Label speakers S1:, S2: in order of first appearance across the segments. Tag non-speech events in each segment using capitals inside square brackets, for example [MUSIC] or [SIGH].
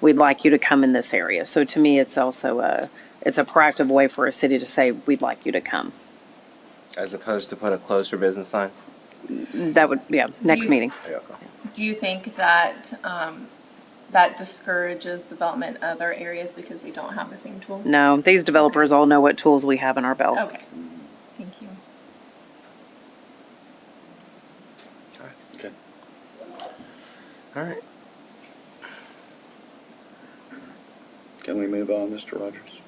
S1: we'd like you to come in this area. So to me, it's also a, it's a proactive way for a city to say, we'd like you to come.
S2: As opposed to put a closer business sign?
S1: That would, yeah, next
S3: you-
S1: meeting.
S3: Do you think that um, that discourages development in other areas because they don't have the same tool?
S1: No, these developers all know what tools we have in our belt.
S3: Okay, thank you.
S4: Okay.
S2: All right.
S4: Can we move on, Mr. Rogers?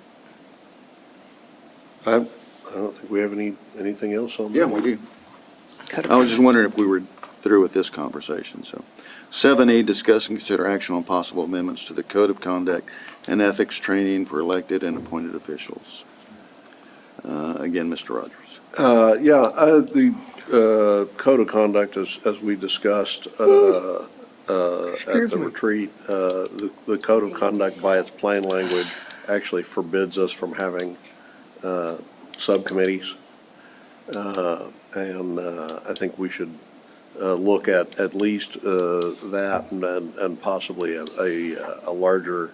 S5: I, I don't think we have any, anything else on that.
S4: Yeah, we do.
S1: Code of
S4: I was just wondering if we were through with this conversation, so. Seven E, discuss and consider action on possible amendments to the Code of Conduct and Ethics Training for elected and appointed officials. Uh, Again, Mr. Rogers.
S5: Uh, yeah, uh, the, uh, code of conduct as, as we discussed, uh, uh, at the retreat, uh, the, the code of conduct by its plain language actually forbids us from having, uh, subcommittees. Uh, and, uh, I think we should, uh, look at, at least, uh, that and, and- and possibly a, a, a larger,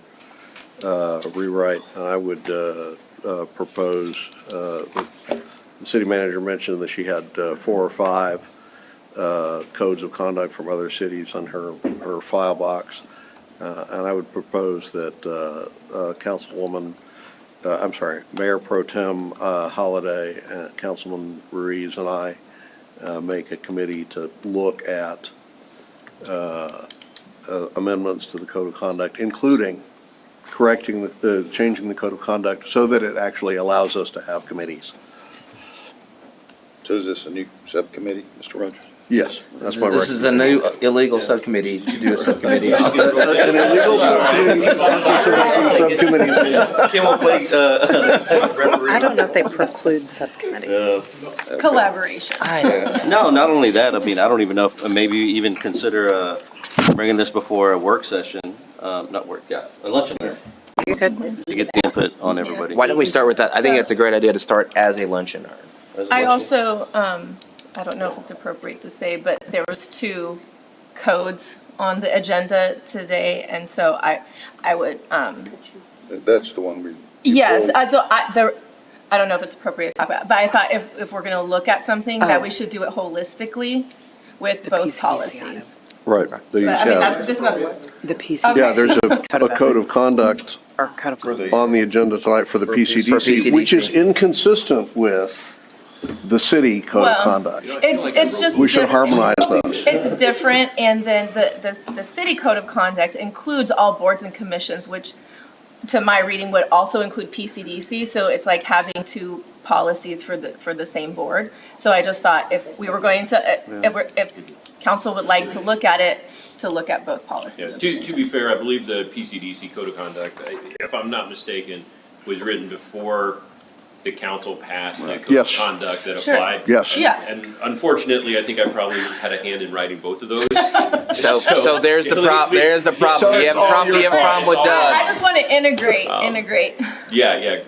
S5: uh, rewrite. And I would, uh, uh, propose, uh, the city manager mentioned that she had uh, four or five uh, codes of conduct from other cities on her, her file box. Uh, And I would propose that uh, uh, Councilwoman, uh, I'm sorry, Mayor Pro Tem uh, Holliday, uh, Councilman Ruiz and I uh, make a committee to look at uh, uh, amendments to the code of conduct, including correcting, the- the, changing the code of conduct so that it actually allows us to have committees.
S4: So is this a new subcommittee, Mr. Rogers?
S5: Yes, that's my
S2: This is a new illegal subcommittee to
S4: [LAUGHS]
S2: do a subcommittee. Kim
S5: recommendation. An illegal subcommittee- subcommittees.
S2: will play, uh,
S1: I don't know if they preclude subcommittees.
S3: Collaboration.
S6: No, not only that, I mean, I don't even know, if uh, maybe even consider uh, bringing this before a work session, um, not work, yeah, a luncheon,
S1: You could,
S6: to get the input on everybody.
S2: Why don't we start with that? I think that's a great idea to start as a luncheon.
S6: As a
S3: I
S6: luncheon.
S3: also, um, I don't know if it's appropriate to say, but there was two codes on the agenda today, and so I, I would, um,
S4: That's the one we.
S3: yes, uh, I, so I, there, I don't know if it's appropriate to talk about, but I thought if, if we're gonna look at something, that we
S1: Oh.
S3: should do it holistically with
S1: The
S3: both
S1: PCC item.
S3: policies.
S5: Right, they
S3: But I mean, that's,
S5: have,
S3: this is not what.
S1: the
S3: Okay.
S1: PCD
S3: [LAUGHS]
S5: yeah, there's a, a code of conduct
S1: or code of conduct.
S5: on the agenda tonight for the
S4: For P-
S2: for
S5: PCDC, which is
S2: PCDC.
S5: inconsistent with the city code
S3: Well,
S5: of conduct.
S3: It's, it's just.
S5: We should
S3: diff-
S5: harmonize those.
S3: It's different, and then the, the, the city code of conduct includes all boards and commissions, which, to my reading, would also include PCDC, so it's like having two policies for the, for the same board. So I just thought if we were going to, if, we're- if council would like to look at it, to look at both
S7: Yes,
S3: policies.
S7: to, to be fair, I believe the PCDC code of conduct, I- if I'm not mistaken, was written before the council passed that code of
S5: Yes.
S7: conduct that
S3: Sure.
S7: applied.
S5: Yes.
S3: Yeah.
S7: And unfortunately, I think I probably had a hand in writing both of those.
S1: [LAUGHS]
S2: So, so there's the
S7: So-
S2: prob, there's the
S5: So
S2: problem. You
S5: it's
S2: have a
S5: all
S2: problem, you
S5: your
S2: have a problem with
S7: fault.
S3: I I
S2: Doug.
S3: just want to integrate, integrate.
S7: Yeah, yeah.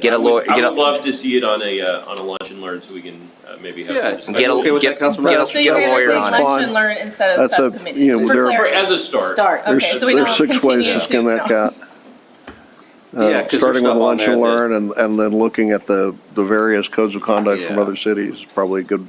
S2: Get a
S7: I would-
S2: lawyer- get
S7: I
S2: a-
S7: would love to see it on a, uh, on a lunch and learn so we can uh, maybe have.
S6: Yeah,
S7: some discussion.
S2: Get
S6: I'm okay
S2: a,
S6: with
S2: get,
S6: that,
S2: get
S6: Councilman.
S3: So you're
S2: a
S3: going to
S2: lawyer
S3: say
S2: on
S5: it.
S3: lunch and learn instead of
S5: That's a-
S3: subcommittee?
S5: you know,
S3: for
S5: there-
S7: For-
S3: clarity.
S7: As a start.
S3: Okay,
S5: There's,
S3: so we
S5: there's
S3: don't
S5: six ways
S3: continue
S5: to skin that
S3: no.
S5: cat. Uh,
S6: Yeah, 'cause there's
S5: Starting with
S6: stuff on
S5: lunch and
S6: there that-
S5: learn and, and then looking at the, the various codes of conduct from
S2: Yeah.
S5: other cities, is probably a good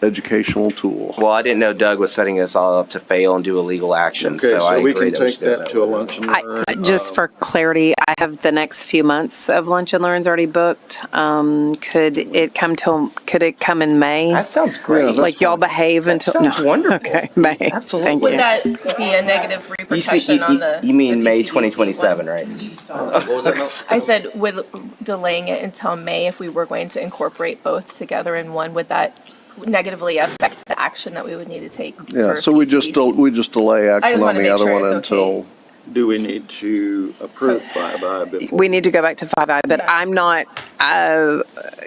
S5: educational tool.
S2: Well, I didn't know Doug was setting us all up to fail and do illegal action,
S4: Okay,
S2: so I
S4: so we
S2: agree
S4: can
S2: that we
S4: take
S2: should do it
S4: that
S2: that
S4: to a
S2: way.
S4: lunch and learn.
S1: I, just for clarity, I have the next few months of lunch and learns already booked. Um, could it come till, could it come in May?
S2: That sounds
S5: Yeah,
S2: great.
S5: that's
S1: Like y'all behave until, [LAUGHS] no.
S2: sounds wonderful.
S1: Okay, May. Thank
S2: Absolutely.
S3: Would
S1: you.
S3: that be a negative
S2: You see,
S3: repercussion
S2: you,
S3: on the?
S2: you- you mean
S3: the
S2: May
S3: PCDC
S2: twenty twenty-seven,
S3: one?
S2: right?
S6: What was that, Mel?
S3: I said, would delaying it until May, if we were going to incorporate both together in one, would that negatively affect the action that we would need to take?
S5: Yeah,
S3: for
S5: so we just, del-
S3: PCDC?
S5: we just delay action on
S3: wanna
S5: the
S3: make
S5: other
S3: sure
S5: one
S3: it's okay.
S5: until
S4: Do we need to approve five I before?
S1: We need to go back to five I, but
S3: Yeah.
S1: I'm not, uh,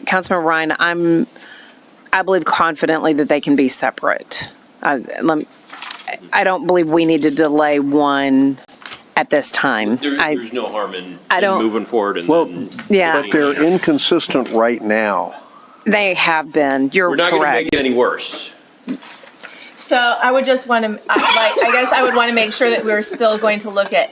S1: Councilman Ryan, I'm, I believe confidently that they can be separate. I, lem- I don't believe we need to delay one at this time.
S7: There,
S1: I-
S7: there's no harm in,
S1: I
S7: in
S1: don't-
S7: moving forward and.
S5: Well,
S7: then-
S1: Yeah.
S5: But they're inconsistent right now.
S1: They have been, you're
S7: We're not gonna make
S1: correct.
S7: it any worse.
S3: So I would just want to, like, I guess I would want to make sure that we're still going to look at